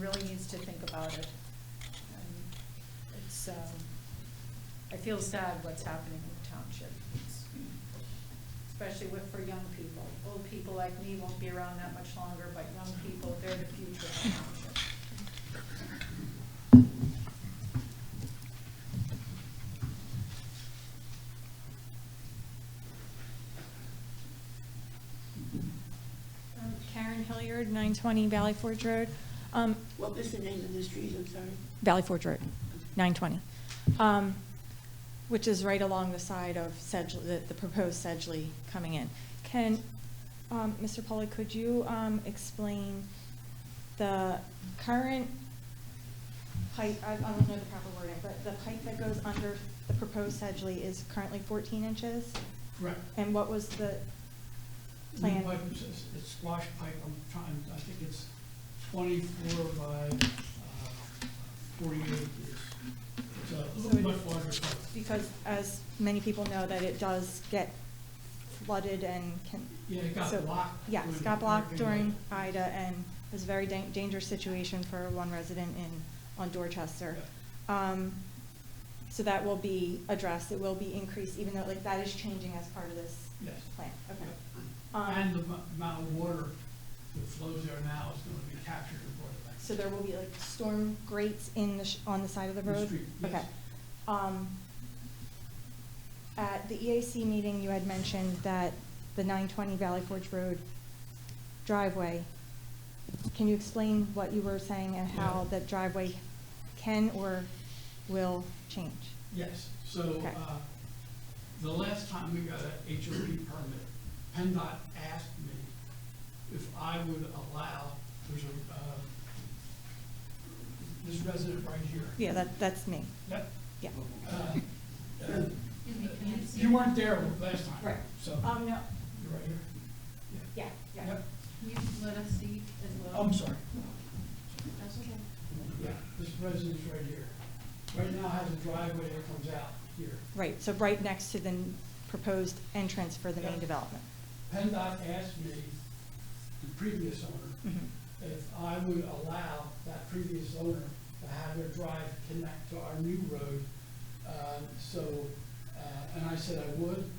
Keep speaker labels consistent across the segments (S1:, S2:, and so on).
S1: really needs to think about it. Um, It's, um, I feel sad what's happening with township, It's- especially with, for young people. Old people like me won't be around that much longer, but young people, they're the future of township.
S2: Um, Karen Hilliard, 920 Valley Forge Road. Um,
S3: What was the name of the street, I'm sorry?
S2: Valley Forge Road, 920, um, which is right along the side of Sedgley, the- the proposed Sedgley coming in. Can, um, Mr. Polly, could you um, explain the current pipe, I I don't know the proper wording, but the pipe that goes under the proposed Sedgley is currently 14 inches?
S4: Correct.
S2: And what was the
S4: New
S2: plan?
S4: pipe, it's- it's it's squash pipe, I'm trying, I think it's twenty-four by uh, forty-eight. It's- It's
S2: So
S4: a
S2: it-
S4: much larger pipe.
S2: because as many people know, that it does get flooded and can.
S4: Yeah, it got
S2: so-
S4: blocked
S2: Yes,
S4: during
S2: got blocked during
S4: Hurricane
S2: Ida and it was a very dan- dangerous situation for one resident in, on Dorchester. Um, So that will be addressed, it will be increased, even though like that is changing as part of this
S4: Yes.
S2: plan, okay. Um,
S4: And the mu- amount of water that flows there now is gonna be captured and brought back.
S2: So there will be like storm grates in the, sh- on the side of the
S4: The
S2: road?
S4: street, yes.
S2: Okay. Um, At the EAC meeting, you had mentioned that the 920 Valley Forge Road driveway, can you explain what you were saying and how
S4: Yeah.
S2: that driveway can or will change?
S4: Yes, so,
S2: Okay.
S4: uh, the last time we got a HOP permit, PennDOT asked me if I would allow, there's a, uh, this resident right here.
S2: Yeah, that, that's me,
S4: That,
S2: yeah.
S4: uh, You weren't there last time.
S2: Right.
S4: So,
S2: Um, no,
S4: you're right here.
S2: yeah, yeah.
S4: Yep,
S1: Can you let us see as
S4: I'm sorry.
S1: That's okay.
S4: Yeah, this resident's right here. Right now has a driveway that comes out here.
S2: Right, so right next to the n- proposed entrance for the main
S4: Yeah.
S2: development.
S4: PennDOT asked me, the previous owner,
S2: Mhm.
S4: if I would allow that previous owner to have their drive connect to our new road. Uh, So, uh, and I said I would,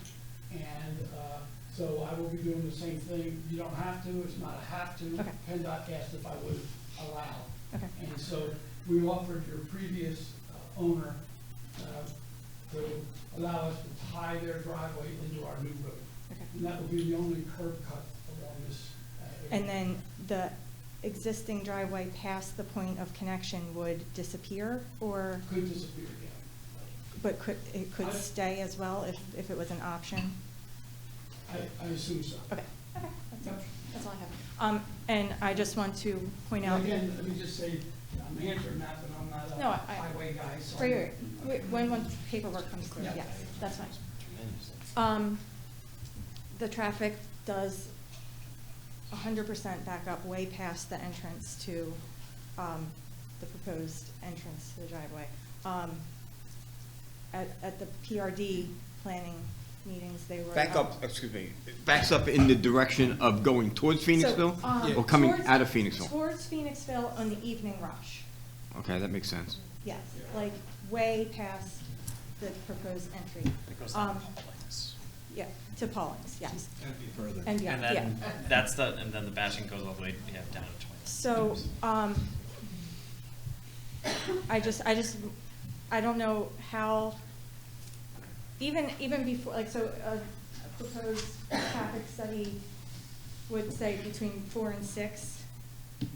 S4: and uh, so I will be doing the same thing. You don't have to, it's not a have to.
S2: Okay.
S4: PennDOT asked if I would allow.
S2: Okay.
S4: And so we offered your previous uh, owner uh, to allow us to tie their driveway into our new road.
S2: Okay.
S4: And that will be the only curb cut along this. uh, area.
S2: And then the existing driveway past the point of connection would disappear, or,
S4: Could disappear again.
S2: but could, it
S4: I-
S2: could stay as well if, if it was an option?
S4: I, I assume so.
S2: Okay, okay,
S4: Yep.
S2: that's all I have. Um, and I just want to point out.
S4: And Again, let me just say, I'm answering that, but I'm not
S2: No,
S4: a
S2: I-
S4: highway guy, so.
S2: Right, right, right. when, when paperwork comes through,
S4: Yeah.
S2: yes, that's fine. Um, the traffic does hundred percent back up way past the entrance to, um, the proposed entrance to the driveway. Um, at, at the PRD planning meetings, they were.
S5: Back up, excuse me, backs up in the direction of going towards Phoenixville?
S2: So, um,
S5: Or coming
S2: towards-
S5: out of Phoenixville?
S2: Towards Phoenixville on the evening rush,
S5: Okay, that makes sense.
S2: yes, like way past the proposed entry. Um, Yeah, to Pauling's, yes. And beyond,
S6: And
S2: yeah.
S6: then, that's the, and then the bashing goes all the way, yeah, down to twenty.
S2: So, um, I just, I just, I don't know how, even, even before, like, so a a proposed traffic study would say between four and six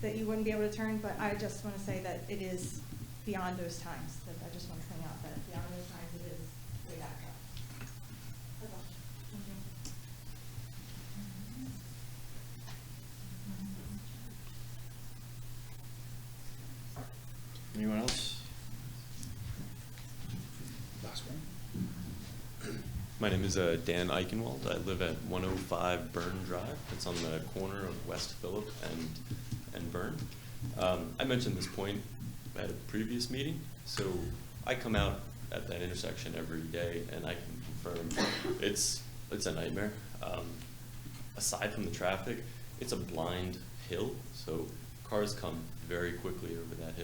S2: that you wouldn't be able to turn, but I just want to say that it is beyond those times. That I just want to point out that beyond those times, it is way back up. That's all. Thank you.
S7: Anyone else?
S8: My name is uh, Dan Eichenwald. I live at 105 Burn Drive. It's on the corner of West Phillip and, and Burn. Um, I mentioned this point at a previous meeting, so I come out at that intersection every day and I can confirm it's, it's a nightmare. Um, aside from the traffic, it's a blind hill, so cars come very quickly over that hill.